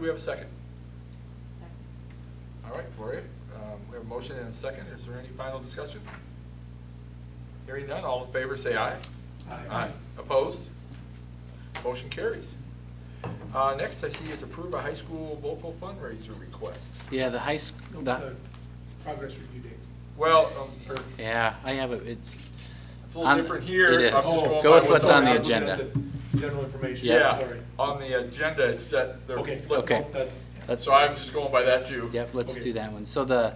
we have a second? Second. All right, Gloria, um, we have a motion and a second. Is there any final discussion? Hearing none, all in favor, say aye. Aye. Opposed? Motion carries. Uh, Next I see is approve a high school local fundraiser request. Yeah, the high, sch- Nope, the, the Progress review dates. Well, um, or- yeah, I have it, it's, it's a little On- different here. it is. I'm just going Go by with what's Sorry, on the I was looking at agenda. the General information, Yeah. Yeah, sorry. on the agenda, it's that. they're Okay, flipped. Okay. well, that's, let's, So I'm just going by that too. yep, let's okay. do that one. So the,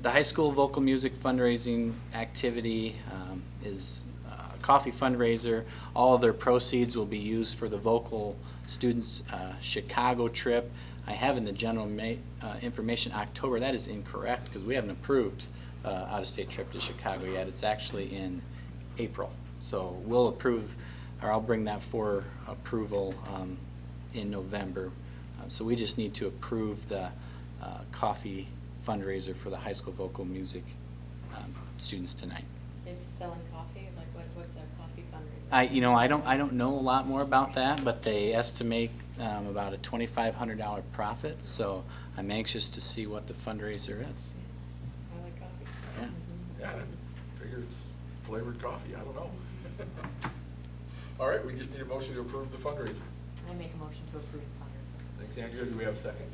the high school vocal music fundraising activity um, is uh, a coffee fundraiser. All of their proceeds will be used for the vocal students' uh, Chicago trip. I have in the general ma, uh, information October, that is incorrect, because we haven't approved uh, out-of-state trip to Chicago yet. It's actually in April. So we'll approve, or I'll bring that for approval um, in November. Uh, So we just need to approve the uh, coffee fundraiser for the high school vocal music um, students tonight. They're selling coffee, like what, what's a coffee fundraiser? I, you know, I don't, I don't know a lot more about that, but they estimate um, about a twenty-five hundred dollar profit, so I'm anxious to see what the fundraiser is. I like coffee. Yeah. Mhm. Yeah, I figure it's flavored coffee, I don't know. All right, we just need a motion to approve the fundraiser. I make a motion to approve the fundraiser. Thanks, Andrea, do we have a second?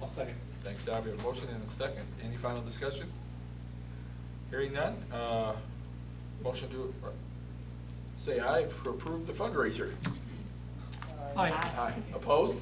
I'll second. Thanks, Don, we have a motion and a second. Any final discussion? Hearing none, uh, motion to, uh, say aye for approve the fundraiser. Aye. Aye. Opposed?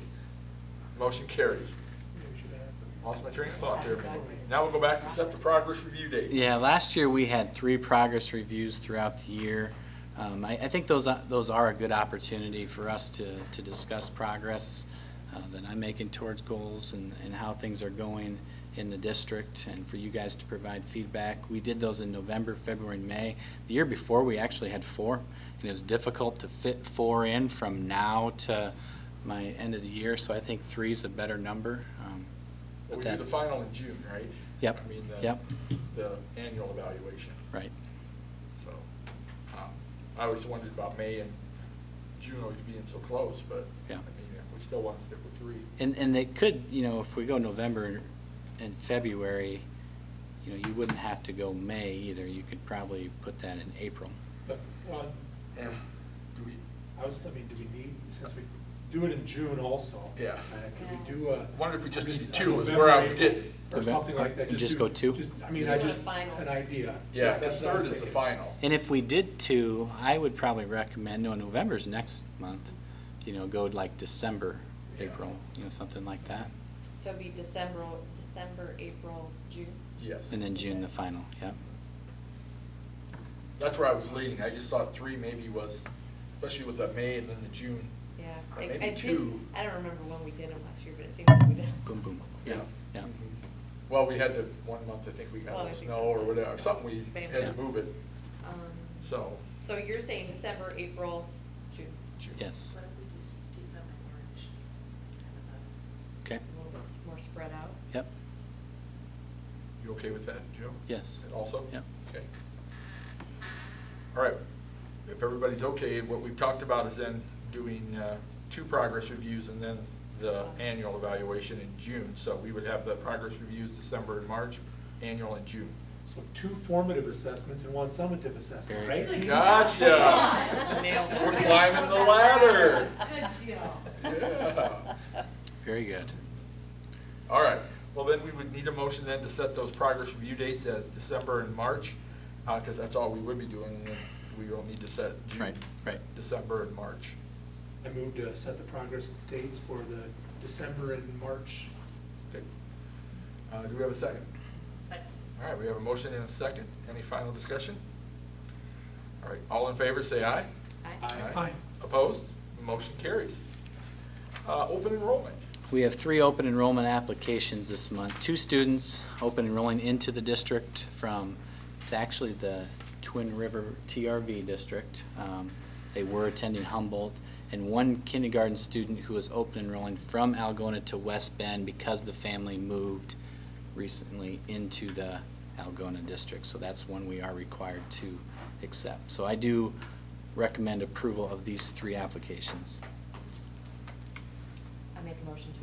Motion carries. Maybe we should add some. Lost my train of thought there. for a moment. Now we'll go back to set the progress review date. Yeah, last year we had three progress reviews throughout the year. Um, I, I think those, are- those are a good opportunity for us to, to discuss progress uh, that I'm making towards goals and, and how things are going in the district and for you guys to provide feedback. We did those in November, February, and May. The year before, we actually had four, and it was difficult to fit four in from now to my end of the year, so I think three's a better number. um, Well, but We do the that's- final in June, right? Yep, I mean, the- yep. The annual evaluation, Right. so. um, I always wondered about May and June always being so close, but, I Yeah. mean, if we still want to stick with three. And, and they could, you know, if we go November and February, you know, you wouldn't have to go May either. You could probably put that in April. But, well, And do we, I was, I mean, do we need, since we do it in June also? Yeah. uh, Could we do a? Wonder if we just I'm need uh, two is where I was November, getting. Or something like that. And just go two? do- just- I mean, I Just just, a final. an idea. yeah, the that's what I was third is the thinking. final. And if we did two, I would probably recommend, no, November's next month, you know, go like December, Yeah. April, you know, something like that. So it'd be December, December, April, June? Yes. And then June, the final, yep. That's where I was leaning. I just thought three maybe was, especially with the May and then the June. Yeah. Or I- I Uh, maybe did- two. I don't remember when we did them last year, but it seemed like we did. Boom, boom. Yeah. Yeah. Mm-hmm. Well, we had the one month, I think we Well, got I the think snow that's or it. whatever, something we Bam. had Yeah. to move it, Um, so. So you're saying December, April, June? June. Yes, What if we do s- December, March, it's kind of a. okay, A little bit s- more spread out? yep, You okay with that, Joe? yes. And Also? Yep. Okay. All right, if everybody's okay, what we've talked about is then doing uh, two progress reviews and then the annual evaluation in June. So we would have the progress reviews December and March, annual in June. So two formative assessments and one summative assessment, Very right? good. Gotcha. Nailed it. We're climbing the ladder. Good deal. Yeah. Very good. All right, well then we would need a motion then to set those progress review dates as December and March, because that's all we would be doing, and then we will need to set June. Right, right. December and March. I moved to set the progress dates for the December and March. Okay. Uh, Do we have a second? Second. All right, we have a motion and a second. Any final discussion? All right, all in favor, say aye. Aye. Aye. Opposed? Motion carries. Uh, Open enrollment. We have three open enrollment applications this month. Two students open enrolling into the district from, it's actually the Twin River TRV district. Um, They were attending Humboldt, and one kindergarten student who was open enrolling from Algona to West Bend because the family moved recently into the Algona district. So that's one we are required to accept. So I do recommend approval of these three applications. I make a motion to